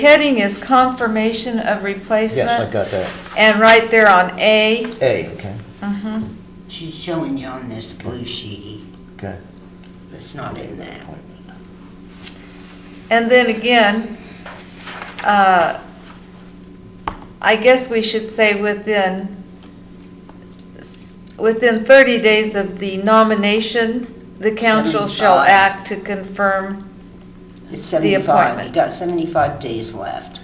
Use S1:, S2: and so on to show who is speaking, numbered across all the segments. S1: Heading is confirmation of replacement.
S2: Yes, I got that.
S1: And right there on A,
S2: A, okay,
S1: mhm,
S3: She's showing you on this blue sheety.
S2: okay.
S3: It's not in that.
S1: and then again, uh, I guess we should say within, s- within 30 days of the nomination, the council shall
S3: 75.
S1: act to confirm.
S3: It's
S1: The
S3: seventy-five.
S1: appointment.
S3: You got seventy-five days left.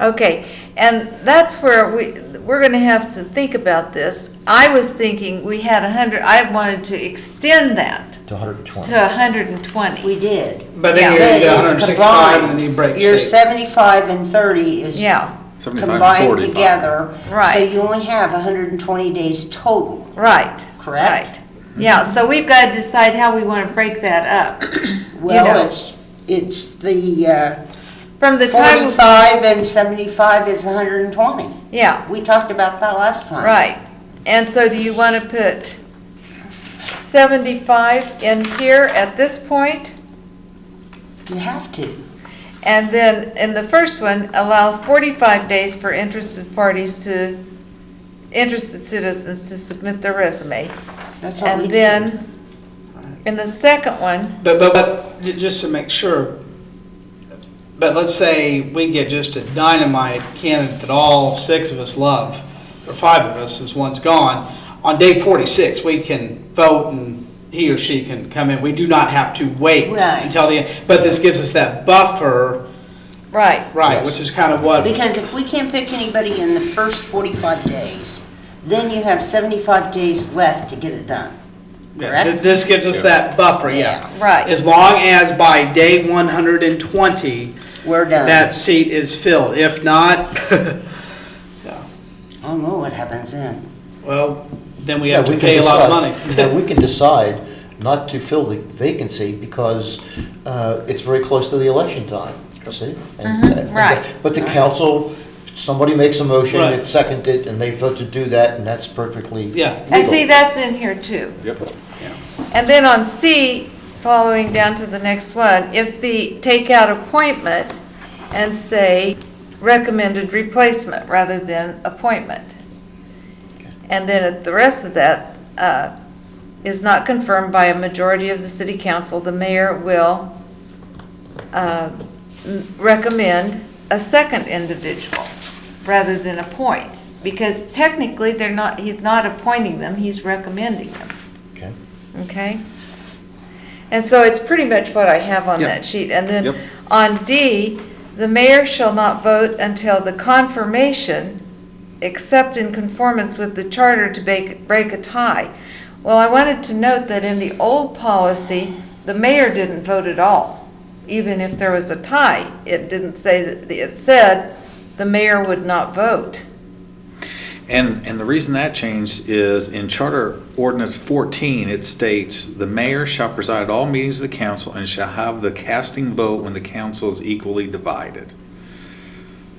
S1: Okay, and that's where we, we're gonna have to think about this. I was thinking we had 100, I wanted to extend that
S2: To 120.
S1: to 120.
S3: We did.
S4: But then
S1: Yeah.
S4: you get
S3: But it's
S4: 165 and then you
S3: combined.
S4: break
S3: Your
S4: state.
S3: seventy-five and thirty is
S1: Yeah,
S3: combined together. So
S1: Right.
S3: you only have hundred and twenty days total,
S1: right.
S3: correct?
S1: Right. Yeah, so we've got to decide how we want to break that up. know.
S3: Well, it's, it's the uh,
S1: From the time,
S3: forty-five and seventy-five is hundred and twenty.
S1: yeah,
S3: We talked about that last time.
S1: right. And so do you want to put 75 in here at this point?
S3: You have to.
S1: And then in the first one, allow 45 days for interested parties to, interested citizens to submit their resume.
S3: That's what we
S1: And
S3: did.
S1: then, in the second one,
S4: But, but, but, j- just to make sure, but let's say we get just a dynamite candidate that all six of us love, or five of us, since one's gone. On day 46, we can vote and he or she can come in. We do not have to wait
S3: Right.
S4: until the end. But this gives us that buffer,
S1: right,
S4: right,
S2: Yes.
S4: which is kind of what,
S3: Because if we can't pick anybody in the first 45 days, then you have 75 days left to get it done.
S4: Yeah, th-
S3: Correct?
S4: This gives us that buffer, yeah.
S3: Yeah.
S1: Right.
S4: As long as by day 120,
S3: We're done.
S4: that seat is filled. If not,
S3: I don't know Oh, what happens then.
S4: well, then we
S2: Yeah,
S4: have to
S2: we can
S4: pay a lot of
S2: decide- yeah,
S4: money.
S2: We can decide not to fill the vacancy because uh, it's very close to the election time, you see? And- uh, and-
S1: Mm-hmm, right.
S2: But the council, somebody makes a motion,
S4: Right.
S2: it's seconded, and they vote to do that, and that's perfectly
S4: Yeah.
S1: And
S2: legal.
S1: see, that's in here too.
S5: Yep.
S1: And then on C, following down to the next one, if the, take out appointment and say recommended replacement rather than appointment. And then at the rest of that, uh, is not confirmed by a majority of the city council, the mayor will uh, m- recommend a second individual rather than appoint. Because technically, they're not, he's not appointing them, he's recommending them.
S2: Okay.
S1: Okay? And so it's pretty much what I have on that sheet. And
S5: Yep.
S1: then on D, the mayor shall not vote until the confirmation, except in conformance with the charter to break, break a tie. Well, I wanted to note that in the old policy, the mayor didn't vote at all. Even if there was a tie, it didn't say, that it said the mayor would not vote.
S5: And, and the reason that changed is in Charter Ordinance 14, it states, "The mayor shall preside at all meetings of the council and shall have the casting vote when the council is equally divided."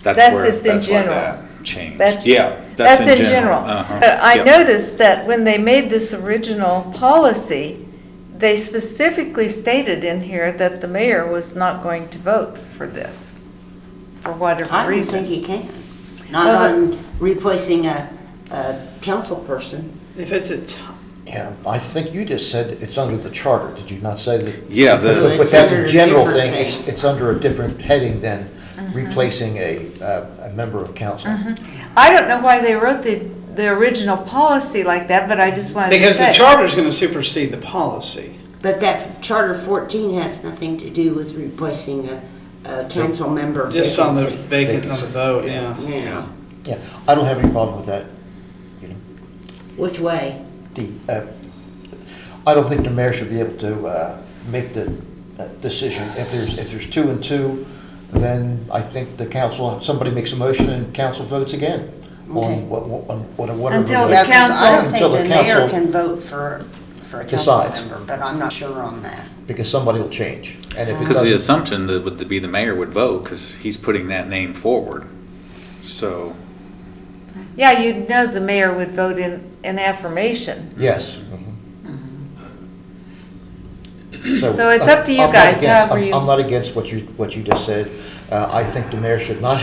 S5: That's
S1: That's
S5: where,
S1: just in
S5: that's why
S1: general.
S5: that changed.
S1: That's-
S5: Yeah,
S1: That's in general.
S5: Uh-huh.
S1: But I
S5: Yep.
S1: noticed that when they made this original policy, they specifically stated in here that the mayor was not going to vote for this, for
S3: I
S1: whatever
S3: don't think
S1: reason.
S3: he can. Not
S1: Well,
S3: on replacing a, a council person.
S4: If it's a, t-
S2: Yeah, I think you just said it's under the charter, did you not say that?
S5: Yeah, the-
S2: But but that's
S3: It's under
S2: a
S3: a
S2: general
S3: different
S2: thing, it's,
S3: thing.
S2: it's under a different heading than replacing a, uh, a member of council.
S1: I don't know why they wrote the, the original policy like that, but I just wanted to
S4: because the
S1: say.
S4: charter's going to supersede the policy.
S3: But that Charter 14 has nothing to do with replacing a, a council member
S4: Just on the
S3: vacancy.
S4: vacant, on the vote, yeah.
S3: Yeah.
S2: Yeah, I don't have any problem with that.
S3: Which way?
S2: The, uh, I don't think the mayor should be able to uh, make the uh, decision. If there's, if there's two and two, then I think the council, somebody makes a motion and council votes again
S3: Okay.
S2: on what, on what- whatever.
S1: Until
S2: way.
S1: the
S3: Yeah, 'cause I don't
S2: Until
S3: think
S2: the
S3: the mayor
S2: council,
S3: can vote for, for a council
S2: Decides.
S3: member, but I'm not sure on that.
S2: because somebody will change. And if it
S5: Because the
S2: doesn't,
S5: assumption that would be the mayor would vote, because he's putting that name forward. So,
S1: Yeah, you'd know the mayor would vote in, in affirmation.
S2: yes.
S1: So it's up to you
S2: I'm not
S1: guys,
S2: against-
S1: however
S2: uh, I'm-
S1: you-
S2: I'm not against what you, what you just said. Uh, I think the mayor should not